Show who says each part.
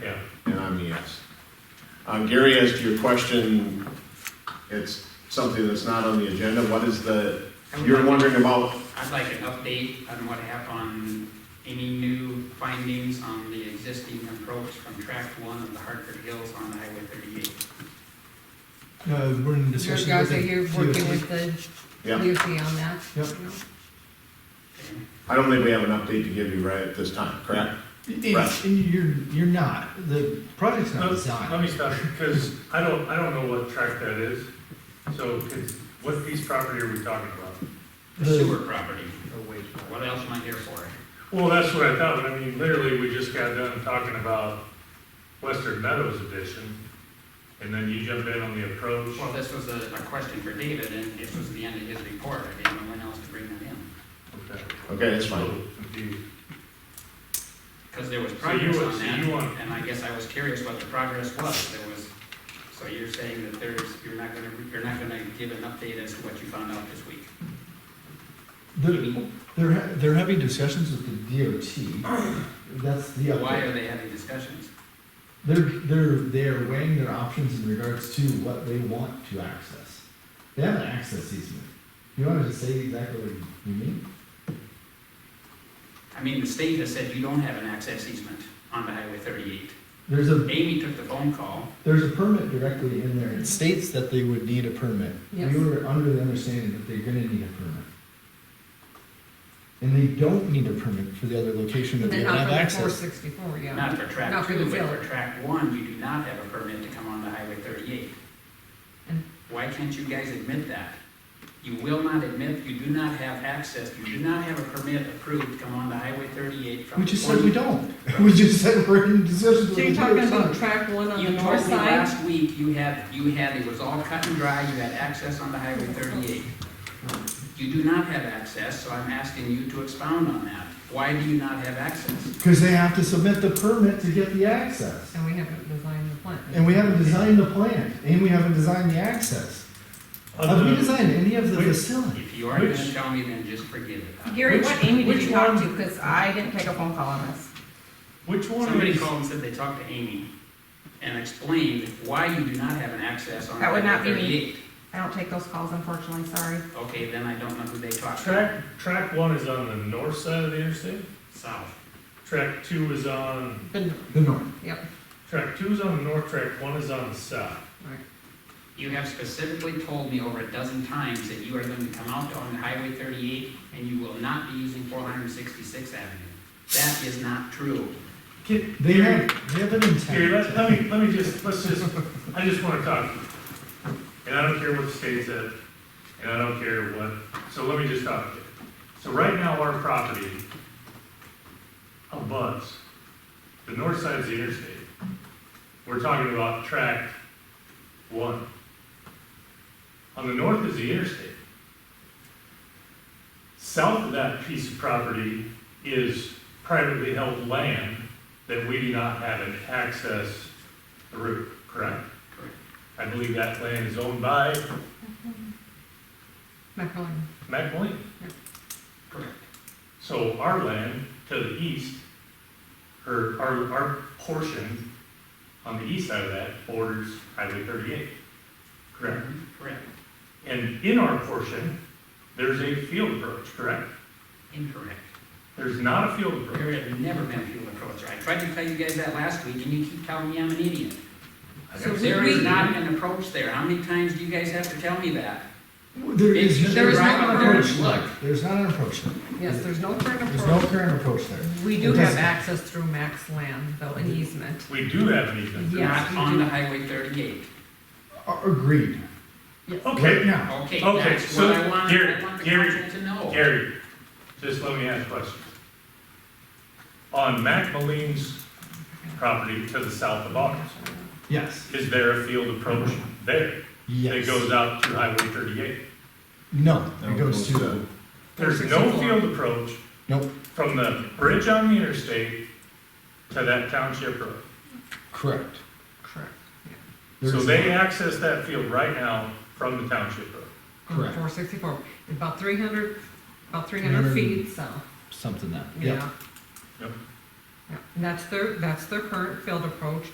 Speaker 1: Yeah.
Speaker 2: And I'm a yes. Um, Gary, as to your question, it's something that's not on the agenda. What is the, you're wondering about,
Speaker 3: I'd like an update on what happened, on any new findings on the existing approach from tract one of the Hartford Hills on Highway thirty-eight.
Speaker 4: Uh, we're in
Speaker 5: Your
Speaker 4: discussion
Speaker 5: guys
Speaker 4: with
Speaker 5: are you
Speaker 4: the
Speaker 5: working
Speaker 4: DOT.
Speaker 5: with the
Speaker 2: yeah,
Speaker 5: DOT on that?
Speaker 4: Yep.
Speaker 3: Okay.
Speaker 2: I don't think we have an update to give you right at this time, correct?
Speaker 4: It's, you're, you're not, the project's
Speaker 1: Oh,
Speaker 4: not
Speaker 1: Let
Speaker 4: designed.
Speaker 1: me stop, because I don't, I don't know what tract that is. So could- what piece of property are we talking about?
Speaker 3: The
Speaker 4: The-
Speaker 3: sewer property, what else am I here for?
Speaker 1: Well, that's what I thought, but I mean, literally, we just got done talking about Western Meadows Edition, and then you jumped in on the approach.
Speaker 3: Well, this was a, a question for David, and this was the end of his report, I didn't know when else to bring that in.
Speaker 1: Okay.
Speaker 2: Okay, that's
Speaker 1: So
Speaker 2: fine.
Speaker 1: confused.
Speaker 3: Because there was
Speaker 1: you
Speaker 3: progress
Speaker 1: would-
Speaker 3: on
Speaker 1: so you
Speaker 3: that,
Speaker 1: want-
Speaker 3: and I guess I was curious what the progress was, there was, so you're saying that there's, you're not gonna, you're not gonna give an update as to what you found out this week?
Speaker 4: They're, they're, ha- they're having discussions with the DOT, that's the
Speaker 3: Why
Speaker 4: update.
Speaker 3: are they having discussions?
Speaker 4: They're, they're, they're weighing their options in regards to what they want to access. They have an access easement. You want to say exactly what you you mean?
Speaker 3: I mean, the state has said you don't have an access easement on the Highway thirty-eight.
Speaker 4: There's a,
Speaker 3: Amy took the phone call,
Speaker 4: there's a permit directly in there, it states that they would need a permit.
Speaker 5: Yes.
Speaker 4: We were under the understanding that they're gonna need a permit. And they don't need a permit for the other location that they
Speaker 5: They're
Speaker 4: don't
Speaker 5: not
Speaker 4: have
Speaker 5: for the four
Speaker 4: access.
Speaker 5: sixty-four, yeah.
Speaker 3: not for track
Speaker 5: Not for
Speaker 3: two,
Speaker 5: the
Speaker 3: but for
Speaker 5: village.
Speaker 3: track one, you do not have a permit to come on the Highway thirty-eight.
Speaker 5: And-
Speaker 3: Why can't you guys admit that? You will not admit, you do not have access, you do not have a permit approved to come on the Highway thirty-eight from.
Speaker 4: We just
Speaker 3: the
Speaker 4: said we don't. We just said we're in discussions with
Speaker 5: So
Speaker 4: the
Speaker 5: you're talking about
Speaker 4: DOT.
Speaker 5: track one on
Speaker 3: You
Speaker 5: the
Speaker 3: told me
Speaker 5: north side?
Speaker 3: last week you had, you had, it was all cut and dry, you had access on the Highway thirty-eight. You do not have access, so I'm asking you to expound on that. Why do you not have access?
Speaker 4: Because they have to submit the permit to get the access.
Speaker 5: And we haven't designed the plan.
Speaker 4: And we haven't designed the plan, and we haven't designed the access. Have we designed any of the
Speaker 1: Wait.
Speaker 4: facility?
Speaker 3: If you are gonna
Speaker 1: Which-
Speaker 3: tell me, then just forgive it.
Speaker 6: Gary, what Amy did
Speaker 4: which
Speaker 6: you talk to? Because I didn't take a phone call on this.
Speaker 1: Which one?
Speaker 3: Somebody
Speaker 1: is-
Speaker 3: called and said they talked to Amy and explained why you do not have an access on
Speaker 6: That would not
Speaker 3: Highway
Speaker 6: be me.
Speaker 3: thirty-eight.
Speaker 6: I don't take those calls, unfortunately, sorry.
Speaker 3: Okay, then I don't know who they talked to.
Speaker 1: Track, track one is on the north side of the interstate,
Speaker 3: South.
Speaker 1: track two is on,
Speaker 5: Been-
Speaker 4: The north.
Speaker 5: Yep,
Speaker 1: track two is on the north, track one is on the south.
Speaker 5: right.
Speaker 3: You have specifically told me over a dozen times that you are going to come out on Highway thirty-eight and you will not be using four hundred and sixty-sixth Avenue. That is not true.
Speaker 1: Can-
Speaker 4: They have, they have an
Speaker 1: Gary, let,
Speaker 4: intent.
Speaker 1: let me, let me just, let's just, I just wanna talk. And I don't care what the state said, and I don't care what, so let me just talk. So right now, our property abuts the north side of the interstate. We're talking about tract one. On the north is the interstate. South of that piece of property is privately held land that we do not have an access route, correct?
Speaker 3: Correct.
Speaker 1: I believe that land is owned by
Speaker 5: McElroy.
Speaker 1: McElwain.
Speaker 3: Correct.
Speaker 1: So our land to the east, or our, our portion on the east side of that borders Highway thirty-eight, correct?
Speaker 3: Correct.
Speaker 1: And in our portion, there's a field approach, correct?
Speaker 3: Incorrect.
Speaker 1: There's not a field approach.
Speaker 3: There have never been a fuel approach. I tried to tell you guys that last week and you keep telling me I'm an idiot.
Speaker 5: So
Speaker 3: There
Speaker 5: we-
Speaker 3: is not an approach there. How many times do you guys have to tell me that?
Speaker 4: There is.
Speaker 3: There
Speaker 5: is no
Speaker 4: not an
Speaker 5: current
Speaker 4: approach.
Speaker 3: look.
Speaker 4: There's not an approach. there.
Speaker 5: Yes, there's no current
Speaker 4: There's no
Speaker 5: approach.
Speaker 4: current approach there.
Speaker 5: We
Speaker 4: It
Speaker 5: do have
Speaker 4: doesn't-
Speaker 5: access through Max Land, though, an easement.
Speaker 1: We do have an easement.
Speaker 5: Yes,
Speaker 3: Not
Speaker 5: we
Speaker 3: on
Speaker 5: do.
Speaker 3: the Highway thirty-eight.
Speaker 4: A- Uh, Agreed. Right
Speaker 1: Okay,
Speaker 4: now.
Speaker 3: Okay,
Speaker 1: Okay,
Speaker 3: that's
Speaker 1: so
Speaker 3: what I want,
Speaker 1: Gary,
Speaker 3: I want the
Speaker 1: Gary,
Speaker 3: council to know.
Speaker 1: Gary, just let me ask a question. On Mac Moline's property to the south of ours,
Speaker 4: Yes.
Speaker 1: is there a field approach there that
Speaker 4: Yes.
Speaker 1: goes out to Highway thirty-eight?
Speaker 4: No,
Speaker 2: No,
Speaker 4: it goes to,
Speaker 1: There's no field approach
Speaker 4: nope,
Speaker 1: from the bridge on the interstate to that township road.
Speaker 4: correct.
Speaker 5: Correct.
Speaker 4: There
Speaker 1: So
Speaker 4: is
Speaker 1: they
Speaker 4: no-
Speaker 1: access that field right now from the township road.
Speaker 4: Correct.
Speaker 5: Four sixty-four, about three hundred, about three hundred
Speaker 4: 300.
Speaker 5: feet south,
Speaker 4: Something that, yeah.
Speaker 5: yeah.
Speaker 1: Yep.
Speaker 5: Yeah, And that's their, that's their current field approach.